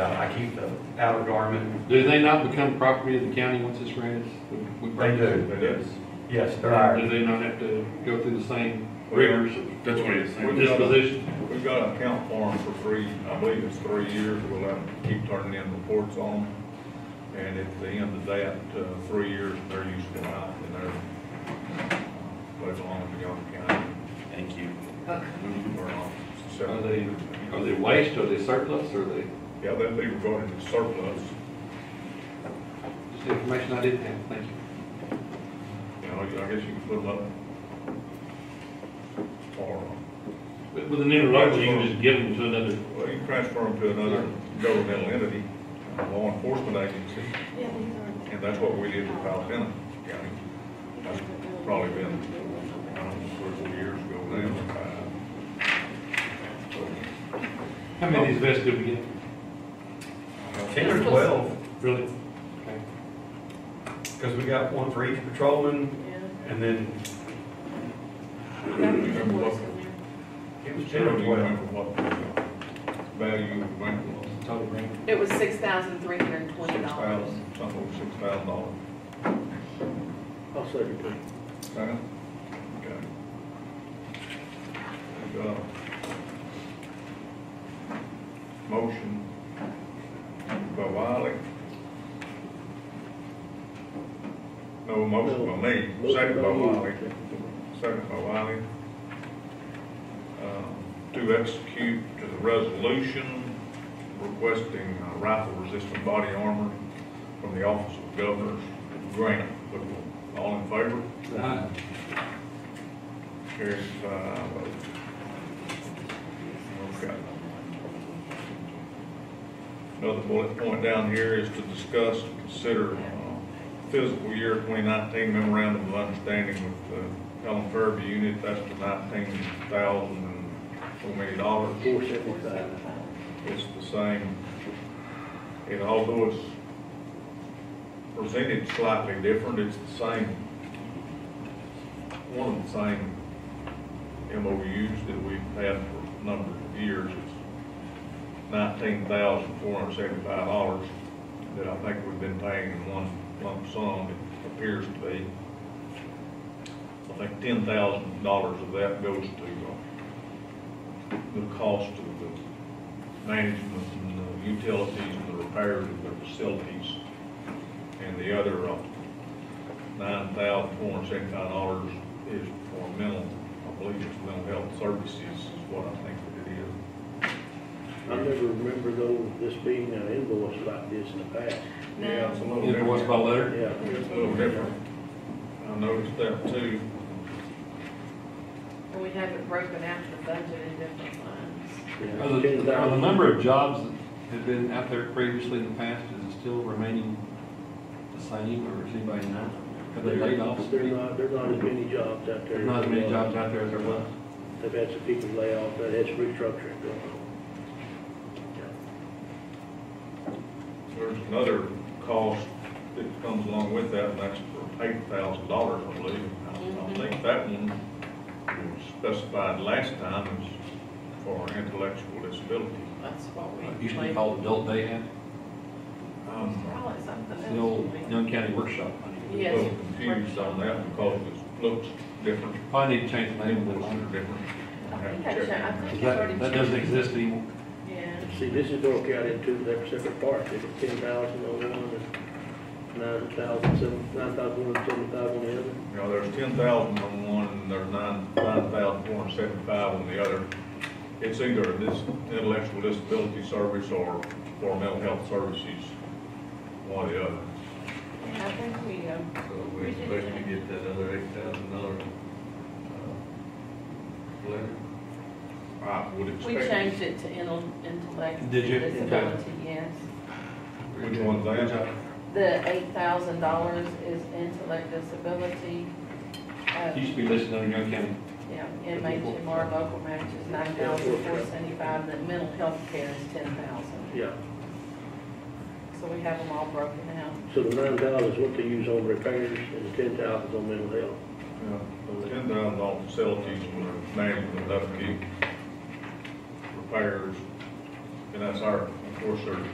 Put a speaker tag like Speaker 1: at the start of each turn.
Speaker 1: to Uh, keep the outer garment.
Speaker 2: Do they not become property of the county once it's rented? We- we
Speaker 1: They
Speaker 2: purchase
Speaker 1: do,
Speaker 2: it.
Speaker 1: yes. Yes, they're
Speaker 2: Do
Speaker 1: ours. Oh,
Speaker 2: they not have to go through the same rigors of
Speaker 3: That's what it's saying.
Speaker 2: disposition?
Speaker 4: We've got an account for them for three, I believe it's three years, we'll have to keep turning in reports on them. And at the end of that, uh, three years, they're useful out, and they're, uh, they belong to Young County,
Speaker 3: Thank you.
Speaker 4: or not.
Speaker 2: Are they, are they waste, are they surplus, are they,
Speaker 4: Yeah, they'd be regarded as surplus,
Speaker 2: just information I didn't have, thank you.
Speaker 4: you know, I guess you can put them up. Or,
Speaker 5: But With an interlocal, you can just give them to another,
Speaker 4: well, you can transfer them to another governmental entity, a law enforcement agency.
Speaker 6: Yeah, these
Speaker 4: And that's what we did with Alpena County. That's probably been, I don't know, three, four years ago now. Uh,
Speaker 2: How many of these vests did we get?
Speaker 1: Ten or twelve,
Speaker 2: Really?
Speaker 1: because we got one for each patrolman,
Speaker 6: are, yeah.
Speaker 1: and then
Speaker 6: Got the invoice in there.
Speaker 1: it was
Speaker 4: so,
Speaker 1: ten
Speaker 4: do
Speaker 1: or
Speaker 4: you
Speaker 1: twelve.
Speaker 4: remember what value of the bank was?
Speaker 2: Total range.
Speaker 7: It was six thousand three hundred and twenty
Speaker 4: Six
Speaker 7: dollars.
Speaker 4: thousand, something over six thousand dollars.
Speaker 5: I'll second that.
Speaker 4: Second? Okay. There you go. Motion by Wiley. No motion by me, second by Wiley. Second by Wiley. Um, To execute to the resolution requesting uh, rifle-resistant body armor from the Office of Governor's grant. All in favor?
Speaker 2: Aye.
Speaker 4: Carries five oh. Okay. Another bullet point down here is to discuss, and consider uh, fiscal year 2019 memorandum of understanding with uh, Helen Fairview unit. That's the 19,000 and so many dollars.
Speaker 5: Four seventy-five.
Speaker 4: It's the same, and although it's presented slightly different, it's the same, one of the same MOUs that we've had for a number of years. It's nineteen thousand four hundred seventy-five dollars that I think we've been paying in one lump sum, it appears to be. I think ten thousand dollars of that goes to uh, the cost of the management and the utilities and the repairs of their facilities. And the other uh, nine thousand four hundred seventy-nine dollars is for mental, I believe it's mental health services is what I think that it is.
Speaker 5: I never remember though, this being an invoice like this in the past.
Speaker 6: No.
Speaker 4: Yeah, it's a little
Speaker 2: Invoice by
Speaker 4: different.
Speaker 2: letter?
Speaker 5: Yeah.
Speaker 4: It's a little different. I noticed that too.
Speaker 7: And we have it broken out in the budget in different lines.
Speaker 2: Are the, are the number of jobs that have been out there previously in the past, is it still remaining the same, or is anybody know? Have they laid off?
Speaker 5: There not, there not as many jobs out there.
Speaker 2: There's not as many jobs out there as there was.
Speaker 5: They've had some people lay off, but that's restructuring going on.
Speaker 4: There's another cost that comes along with that, and that's for eight thousand dollars, I believe. I I think that one was specified last time as for intellectual disability.
Speaker 7: That's what we.
Speaker 2: It Used to be called adult day camp,
Speaker 4: Um,
Speaker 7: Call it something else.
Speaker 2: it's the old Young County Workshop.
Speaker 4: I'm a
Speaker 7: Yes.
Speaker 4: little confused on that because it looks different,
Speaker 2: Probably need to change the name of
Speaker 4: invoices
Speaker 2: it,
Speaker 4: are different.
Speaker 7: I
Speaker 4: have
Speaker 7: think
Speaker 4: to
Speaker 7: I
Speaker 4: check.
Speaker 7: should- I think
Speaker 2: because
Speaker 7: it's already
Speaker 2: that, that doesn't
Speaker 7: changed.
Speaker 2: exist anymore.
Speaker 7: Yeah.
Speaker 5: See, this is broke out into their separate parts, it's ten thousand on one and nine thousand seven, nine thousand one, seven thousand on the other.
Speaker 4: You know, there's ten thousand on one, and there's nine, nine thousand four hundred seventy-five on the other. It's either this intellectual disability service or, or mental health services, one or the other.
Speaker 7: Yeah, I think we, um,
Speaker 3: So we expect to get that other eight thousand dollar, uh, letter.
Speaker 4: I Ah, would
Speaker 7: we
Speaker 4: expect.
Speaker 7: changed it to intel- intellectual
Speaker 2: Did you? Okay.
Speaker 7: disability, yes.
Speaker 4: Which one's that?
Speaker 7: The eight thousand dollars is intellect disability. Uh,
Speaker 2: It Used to be listed under Young County.
Speaker 7: Yeah, inmate to more local matches, nine thousand four seventy-five, and then mental health care is ten thousand.
Speaker 5: Yeah,
Speaker 7: So we have them all broken out.
Speaker 5: so the nine thousand is what they use on repairs and the ten thousand is on mental health.
Speaker 4: Ten thousand on facilities for management and upkeep, repairs, and that's our, of course, our